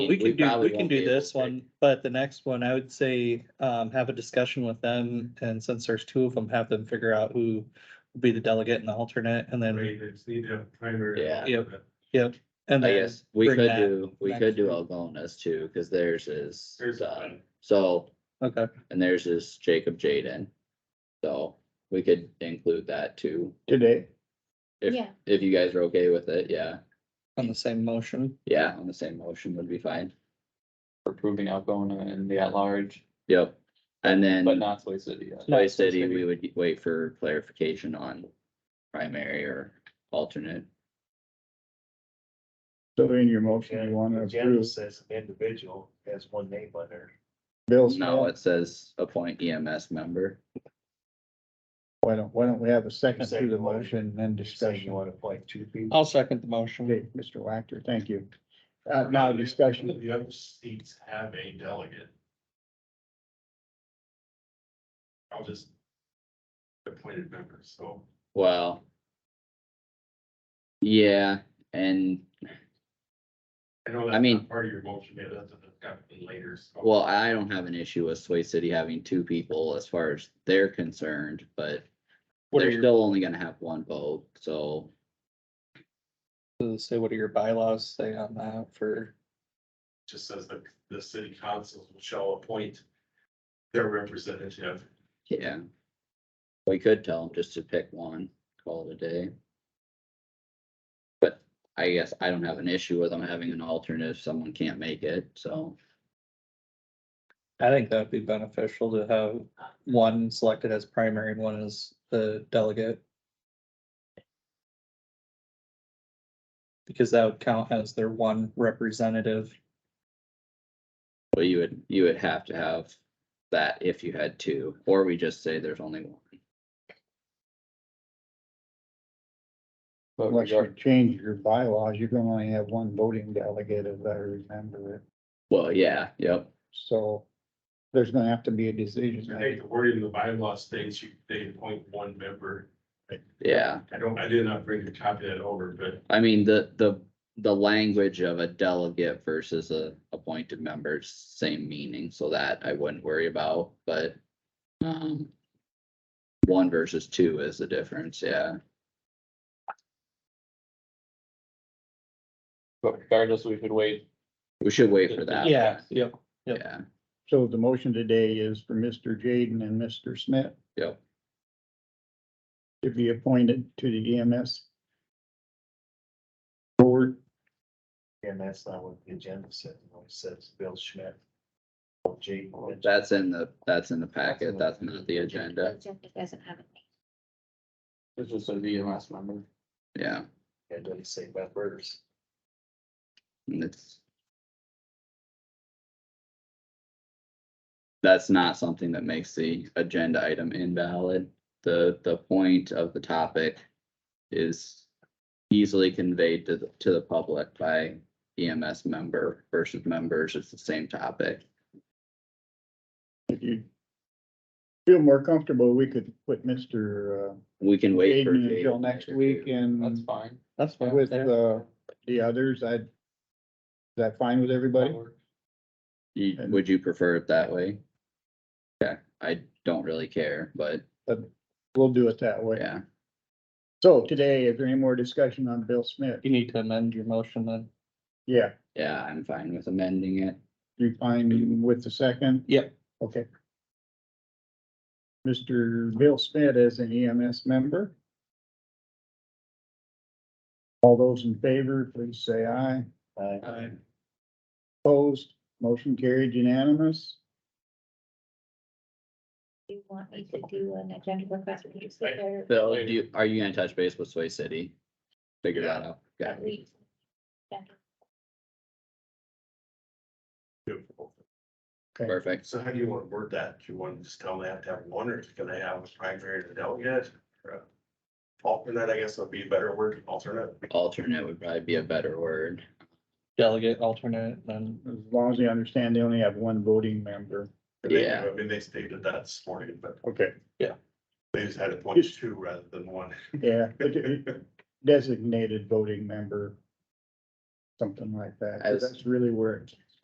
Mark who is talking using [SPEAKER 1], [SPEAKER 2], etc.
[SPEAKER 1] We can do,
[SPEAKER 2] probably
[SPEAKER 1] we can
[SPEAKER 2] won't be
[SPEAKER 1] do
[SPEAKER 2] able
[SPEAKER 1] this
[SPEAKER 2] to
[SPEAKER 1] one, but the next one, I would say, um, have a discussion with them, and since there's two of them, have them figure out who will be the delegate and the alternate, and then,
[SPEAKER 3] Right, it's need to have primary.
[SPEAKER 2] Yeah.
[SPEAKER 1] Yep. yep, and
[SPEAKER 2] I
[SPEAKER 1] then.
[SPEAKER 2] guess we
[SPEAKER 1] bring
[SPEAKER 2] could
[SPEAKER 1] that
[SPEAKER 2] do, we
[SPEAKER 1] back
[SPEAKER 2] could do
[SPEAKER 1] through.
[SPEAKER 2] Algonas too, cause theirs is
[SPEAKER 3] There's
[SPEAKER 2] done.
[SPEAKER 3] one.
[SPEAKER 2] So,
[SPEAKER 1] Okay,
[SPEAKER 2] and theirs is Jacob Jaden. So we could include that too,
[SPEAKER 4] today.
[SPEAKER 2] if,
[SPEAKER 5] Yeah.
[SPEAKER 2] if you guys are okay with it, yeah.
[SPEAKER 1] on the same motion,
[SPEAKER 2] Yeah, on the same motion would be fine.
[SPEAKER 6] approving Algona and the at-large,
[SPEAKER 2] Yep. And
[SPEAKER 6] but
[SPEAKER 2] then
[SPEAKER 6] not Soy City. yet.
[SPEAKER 2] by city, we would wait for clarification on primary or alternate.
[SPEAKER 4] So in your motion, you want to
[SPEAKER 3] Agenda
[SPEAKER 4] approve
[SPEAKER 3] says an individual has one name on there.
[SPEAKER 4] Bill's.
[SPEAKER 2] No, it says appoint EMS member.
[SPEAKER 4] Why don't, why don't we have a second
[SPEAKER 3] Second
[SPEAKER 4] to the
[SPEAKER 3] one.
[SPEAKER 4] motion and then
[SPEAKER 3] Saying you
[SPEAKER 4] discussion?
[SPEAKER 3] wanna appoint two people.
[SPEAKER 1] I'll second the motion,
[SPEAKER 4] Okay, Mr. Wactor, thank you. Uh, now discussion,
[SPEAKER 3] The other seats have a delegate. I'll just. Appointed members, so.
[SPEAKER 2] Well. Yeah, and
[SPEAKER 3] know
[SPEAKER 2] I
[SPEAKER 3] that's
[SPEAKER 2] mean-
[SPEAKER 3] not Part of your motion, maybe that's definitely later. so-
[SPEAKER 2] well, I don't have an issue with Sway City having two people as far as they're concerned, but
[SPEAKER 1] what are
[SPEAKER 2] they're
[SPEAKER 1] your,
[SPEAKER 2] still only gonna have one vote, so.
[SPEAKER 1] say, what are your bylaws say on that for,
[SPEAKER 3] Just says that the city council shall appoint. Their representative.
[SPEAKER 2] Yeah. We could tell them just to pick one, call it a day. But I guess I don't have an issue with them having an alternate if someone can't make it, so,
[SPEAKER 1] I think that'd be beneficial to have one selected as primary and one as the delegate. Because that would count as their one representative.
[SPEAKER 2] but you would, you would have to have that if you had two, or we just say there's only one.
[SPEAKER 6] But
[SPEAKER 4] unless you
[SPEAKER 6] regard,
[SPEAKER 4] change your bylaws, you can only have one voting delegate, as I remember it.
[SPEAKER 2] Well, yeah, yep,
[SPEAKER 4] So there's gonna have to be a decision.
[SPEAKER 3] I think the wording in the bylaw states you, they appoint one member.
[SPEAKER 2] yeah.
[SPEAKER 3] I don't, I did not bring a copy of that over, but
[SPEAKER 2] I mean, the, the, the language of a delegate versus a appointed member, is same meaning, so that I wouldn't worry about, but. Um. One versus two is the difference, yeah,
[SPEAKER 6] but regardless, we could wait.
[SPEAKER 2] we should wait for that.
[SPEAKER 1] Yep. Yep.
[SPEAKER 2] Yeah,
[SPEAKER 4] So the motion today is for Mr. Jaden and Mr. Smith
[SPEAKER 2] yep,
[SPEAKER 4] to be appointed to the E EMS board.
[SPEAKER 3] and that's not what the agenda said, it only says Bill Schmidt. Jake.
[SPEAKER 2] that's in the, that's in the packet, that's not the agenda,
[SPEAKER 5] Agenda doesn't have a name.
[SPEAKER 6] It's just a VMS member.
[SPEAKER 2] yeah,
[SPEAKER 3] It doesn't say members.
[SPEAKER 2] and it's. That's not something that makes the agenda item invalid. The, the point of the topic is easily conveyed to, the to the public by EMS member versus members. It's the same topic.
[SPEAKER 4] If you feel more comfortable, we could put Mr. uh,
[SPEAKER 2] We can wait. for
[SPEAKER 4] Jaden until next week
[SPEAKER 6] That's
[SPEAKER 4] and
[SPEAKER 6] fine.
[SPEAKER 1] Mm. That's uh, fine.
[SPEAKER 4] with the, the others, I. Is that fine with everybody?
[SPEAKER 2] You- Would you prefer it that way? Yeah, I don't really care, but
[SPEAKER 4] We'll do it that way.
[SPEAKER 2] yeah,
[SPEAKER 4] So today, is there any more discussion on Bill Smith?
[SPEAKER 1] You need to amend your motion then.
[SPEAKER 4] Yeah,
[SPEAKER 2] yeah, I'm fine with amending it.
[SPEAKER 4] you fine with the second?
[SPEAKER 1] Yep.
[SPEAKER 4] Okay. Mr. Bill Smith as an EMS member. All those in favor, please say aye. Opposed, motion carried unanimous.
[SPEAKER 5] Do you want me to do an agenda request for you to sit there?
[SPEAKER 2] Bill, do you, are you gonna touch base with Sway City? Figure that out. Yeah,
[SPEAKER 5] At least. Yeah.
[SPEAKER 2] perfect.
[SPEAKER 3] So how do you want to word that? Do you want to just tell them they have to have one, or can they have a primary and a delegate? or a Alternate, I guess would be a better word, alternate.
[SPEAKER 2] Alternate would probably be a better word.
[SPEAKER 1] Delegate, alternate, then
[SPEAKER 4] As long as you understand, they only have one voting member.
[SPEAKER 3] They-
[SPEAKER 2] Yeah.
[SPEAKER 3] I mean, they stated that this morning, but
[SPEAKER 4] Okay.
[SPEAKER 3] they just had to point two rather than one.
[SPEAKER 4] Yeah, but designated voting member. Something like that, 'cause
[SPEAKER 2] As-
[SPEAKER 4] that's really where it